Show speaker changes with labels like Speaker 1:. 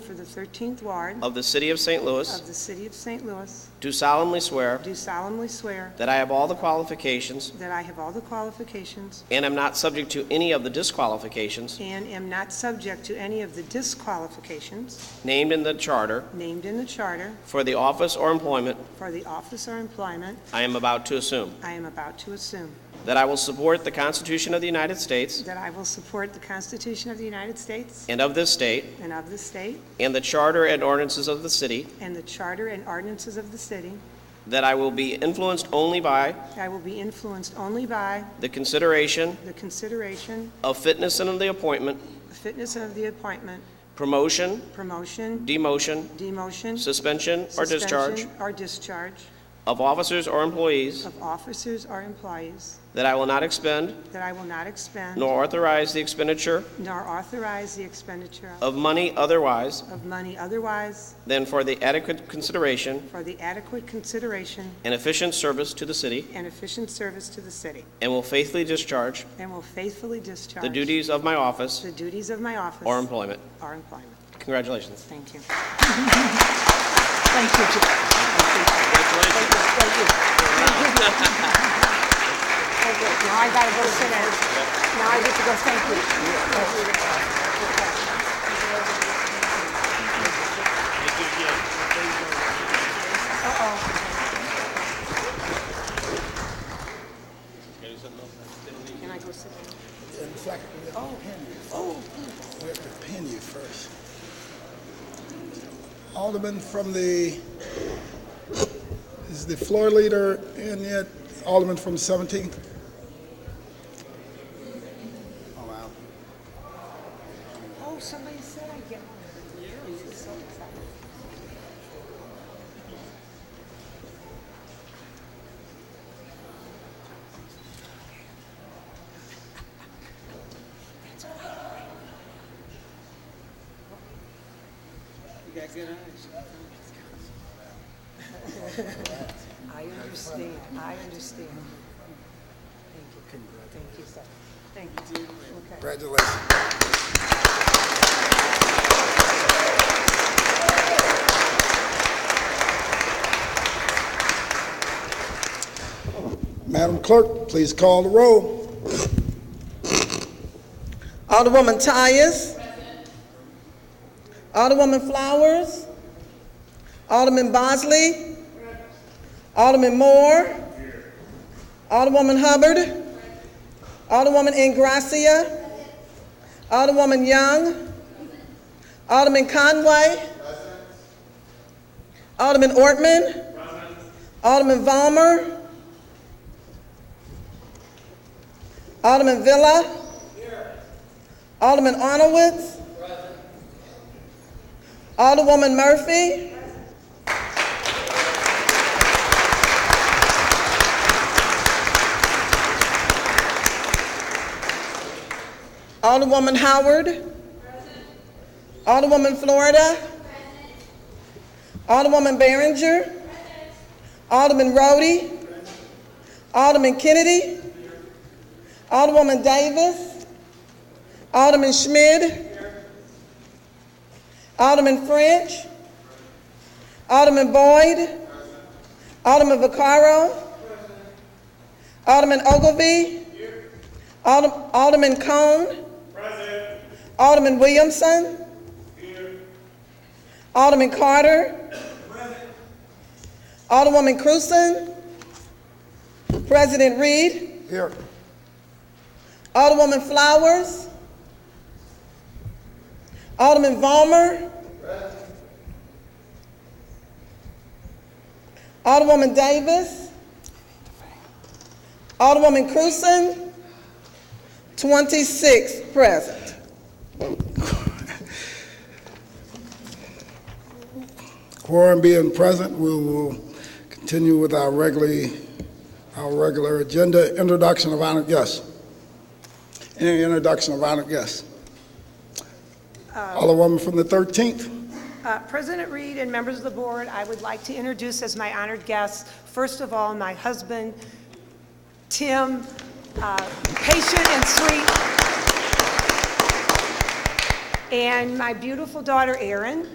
Speaker 1: for the 13th Ward
Speaker 2: of the City of St. Louis,
Speaker 1: of the City of St. Louis,
Speaker 2: do solemnly swear
Speaker 1: do solemnly swear
Speaker 2: that I have all the qualifications
Speaker 1: that I have all the qualifications
Speaker 2: and am not subject to any of the disqualifications
Speaker 1: and am not subject to any of the disqualifications
Speaker 2: named in the Charter
Speaker 1: named in the Charter
Speaker 2: for the office or employment
Speaker 1: for the office or employment
Speaker 2: I am about to assume,
Speaker 1: I am about to assume,
Speaker 2: that I will support the Constitution of the United States
Speaker 1: that I will support the Constitution of the United States
Speaker 2: and of this state,
Speaker 1: and of the state,
Speaker 2: and the Charter and ordinances of the city,
Speaker 1: and the Charter and ordinances of the city.
Speaker 2: that I will be influenced only by
Speaker 1: I will be influenced only by
Speaker 2: the consideration
Speaker 1: the consideration,
Speaker 2: of fitness and of the appointment,
Speaker 1: the fitness of the appointment,
Speaker 2: promotion,
Speaker 1: promotion,
Speaker 2: demotion,
Speaker 1: demotion,
Speaker 2: suspension, or discharge
Speaker 1: suspension, or discharge
Speaker 2: of officers or employees,
Speaker 1: of officers or employees,
Speaker 2: that I will not expend
Speaker 1: that I will not expend
Speaker 2: nor authorize the expenditure
Speaker 1: nor authorize the expenditure
Speaker 2: of money otherwise
Speaker 1: of money otherwise
Speaker 2: than for the adequate consideration
Speaker 1: for the adequate consideration
Speaker 2: and efficient service to the city,
Speaker 1: and efficient service to the city,
Speaker 2: and will faithfully discharge
Speaker 1: and will faithfully discharge
Speaker 2: the duties of my office
Speaker 1: the duties of my office
Speaker 2: or employment.
Speaker 1: or employment.
Speaker 2: Congratulations.
Speaker 1: Thank you.
Speaker 3: Thank you. Jim. Thank you. Now I gotta go sit down. Now I get to go, thank you.
Speaker 1: Can I go sit down?
Speaker 4: In fact, we have to pin you. Oh. We have to pin you first. Alderman from the, is the floor leader in yet? Alderman from 17th? Oh, wow.
Speaker 1: Oh, somebody said I get one. This is so exciting. I understand, I understand. Thank you. Thank you, sir. Thank you. Okay.
Speaker 4: Congratulations. Madam Clerk, please call the roll.
Speaker 5: Alderwoman Tyus. Alderwoman Flowers. Alderman Bosley. Alderman Moore. Alderwoman Hubbard. Alderwoman Ingracia. Alderwoman Young. Alderman Conway. Alderman Ortman. Alderman Valmer. Alderman Villa. Alderman Arnowitz. Alderwoman Murphy. Alderwoman Howard. Alderwoman Florida. Alderwoman Behringer. Alderman Rhodey. Alderman Kennedy. Alderwoman Davis. Alderman Schmid. Alderman French. Alderman Boyd. Alderman Vaccaro. Alderman Ogilvy. Alderm- Alderman Cone. Alderman Williamson. Alderman Carter. Alderwoman Cruzen. President Reed.
Speaker 4: Here.
Speaker 5: Alderwoman Flowers. Alderman Vollmer. Alderwoman Davis. Alderwoman Cruzen. 26 present.
Speaker 4: Quorum being present, we will continue with our regularly, our regular agenda, introduction of honored guests. Any introduction of honored guests? Alderwoman from the 13th,
Speaker 1: Uh, President Reed and members of the board, I would like to introduce as my honored guests, first of all, my husband, Tim, uh, patient and sweet, and my beautiful daughter, Erin.